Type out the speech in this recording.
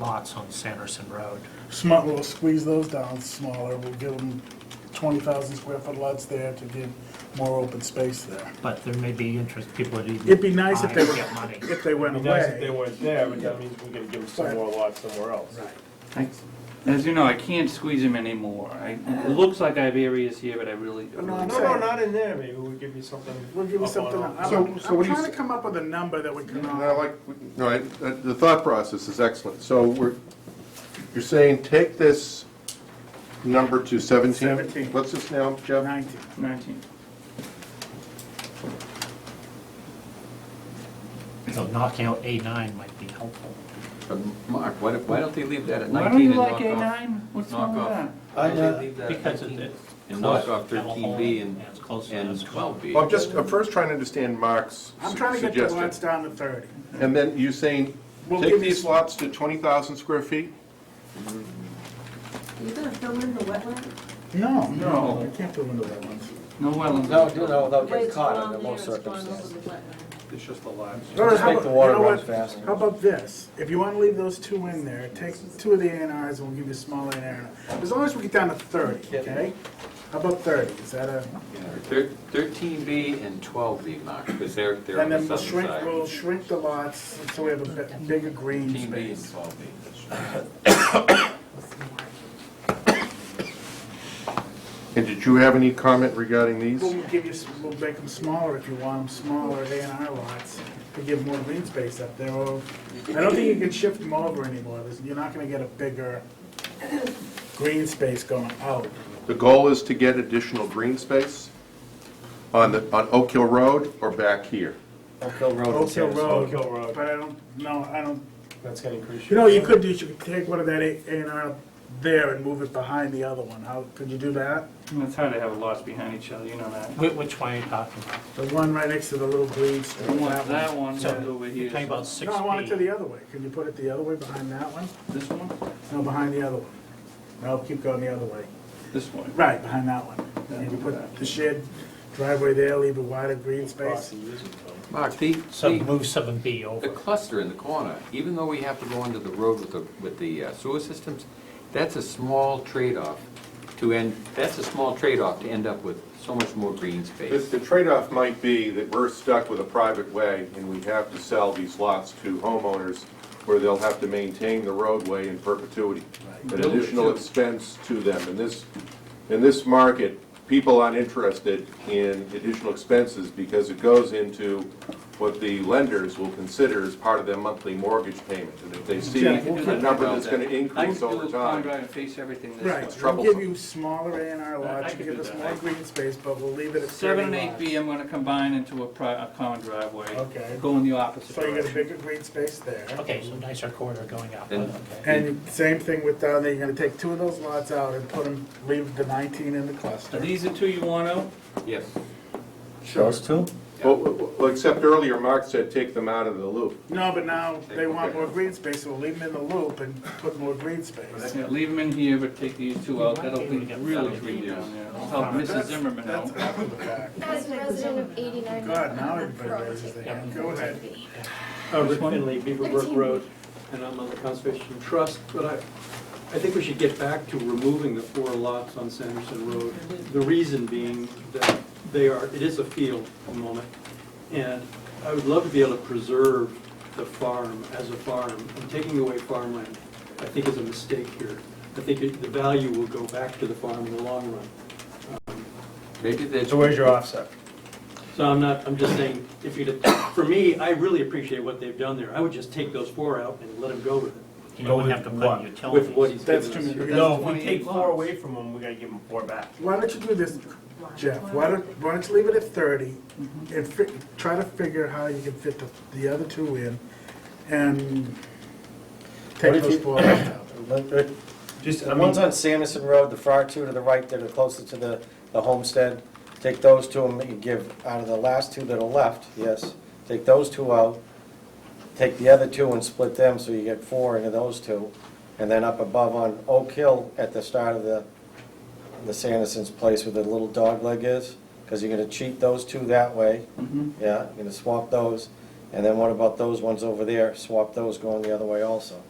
lots on Sanderson Road. Smart, we'll squeeze those down smaller, we'll give them 20,000 square foot lots there to give more open space there. But there may be interest, people that even. It'd be nice if they buy were- and get money. If they went It'd be nice if they away. weren't there, but that means we could give them some more lots somewhere else. I- As you know, I can't squeeze them anymore. I, it looks like I have areas here, but I really, I No, really I'm No, saying- no, not in there, maybe we'll give you something. We'll give you up on uh, something, up. I'm So- so I'm what do you trying to s- come up with a number that we can No, all, I like, no, I- uh, the thought process is excellent. So we're, you're saying, take this number to 17? 17. What's this now, Jeff? 19. 19. So knocking out A nine might be helpful. But Uh, Mark, why, don't- why don't they leave that at Why don't you nineteen and like knock off? A9? What's wrong with Knock that? off. Why don't they leave that at Because it- 19? it's And knock close off to Pebble thirteen B Hole, and, it's close to and this. twelve B. Well, I'm just, I'm first trying to understand Mark's I'm trying to get the lots suggestion. down to 30. And then you're saying, We'll take give you- these lots to 20,000 square feet? You gonna fill in the wetland? No, no, you can't do into that one. No wetlands. No, do no, they'll The way get it's caught gone under there, most it's gone circumstances. over the wetland. It's just the lots. Or Just how make the about- water you know run what? faster. How about this? If you want to leave those two in there, take two of the A and Rs and we'll give you a small A and R. As long as we get down to 30, Yeah. okay? How about 30? Is that a, Thirteen B and twelve B, Mark, because they're, they're on and the then we'll southern shrink, side. we'll shrink the lots so we have a bi- bigger green Thirteen B and space. twelve B. And did you have any comment regarding these? We'll give you, s- we'll make them smaller if you want them smaller, A and R lots, to give more green space up there. Or I don't think you can shift them over anymore. There's- You're not going to get a bigger green space going out. The goal is to get additional green space on the, on Oak Hill Road or back here? Oak Hill Road. Oak is Hill here. Road, Hill Road. but I don't, no, I don't, That's gonna increase you your. know, you could do, you could take one of that A and R there and move it behind the other one, how, could you do that? It's hard to have lots behind each other, you know that. Which, which one are you talking about? The one right next to the little green I street, want that that one. one So, and over here. You're talking about six No, I want it to B. the other way, can you put it the other way, behind that one? This one? No, behind the other one. No, keep going the other way, This one. right, behind that one. And you put the shared driveway there, leave a wider green space. Mark, the, So the, move seven B the over. cluster in the corner, even though we have to go onto the road with the, with the uh, sewer systems, that's a small trade-off to end, that's a small trade-off to end up with so much more green The- space. The trade-off might be that we're stuck with a private way and we have to sell these lots to homeowners where they'll have to maintain the roadway in perpetuity, an additional expense to them. In this, in this market, people aren't interested in additional expenses because it goes into what the lenders will consider as part of their monthly mortgage payment. And if they see Yeah, a we'll keep- number that's going to I can increase do over a corner time. drive and face everything this way. Right, we'll give you smaller A and R lots, you give us more green space, but we'll leave it at thirty Seven and eight lots. B, I'm gonna combine into a pri, a common driveway. Okay. Go in the opposite So you got a direction. bigger green space there. Okay, so nicer corridor going up, And- okay. And same thing with down there, you're gonna take two of those lots out and put them, leave the nineteen in the Are cluster. these the two you want out? Yes. Those two? Well, well, well, except earlier, Mark said take them out of the loop. No, but now they want more green space, so we'll leave them in the loop and put more green space. Yeah, leave them in here, but take these two out, that'll Maybe be we get really some green ideas. down there. I'll Help Mrs. Zimmerman out. That's after the fact. As a resident of 89 God, now everybody raises their hand. Go ahead. Uh, Rick Finley, Beaverbrook Road, and I'm on the Conservation Trust, but I, I think we should get back to removing the four lots on Sanderson Road. The reason being that they are, it is a field at the moment, and I would love to be able to preserve the farm as a farm. And taking away farmland, I think is a mistake here. I think it- the value will go back to the farm in the long run. Maybe that's. So where's your offset? So I'm not, I'm just saying, if you, did- for me, I really appreciate what they've done there. I would just take those four out and let him go with it, You don't have to put with what utilities. he's That's given too us here. many. No, if we take four away from them, we gotta give them four back. Why don't you do this, Jeff? Why don't, why don't you leave it at thirty and fi- try to figure how you can fit the, the other two in and What take if those you- four out. Let- let- Just, The ones on Sanderson Road, the far two to the right that are closer to the, the homestead, take those two and give, out of the last two that are left, yes, take those two out, take the other two and split them, so you get four into those two, and then up above on Oak Hill at the start of the, the Sanderson's place where the little dog leg is, because you're gonna cheat those two that way, Mhm. yeah, you're gonna swap those, and then what about those ones over there, swap those going the other way also.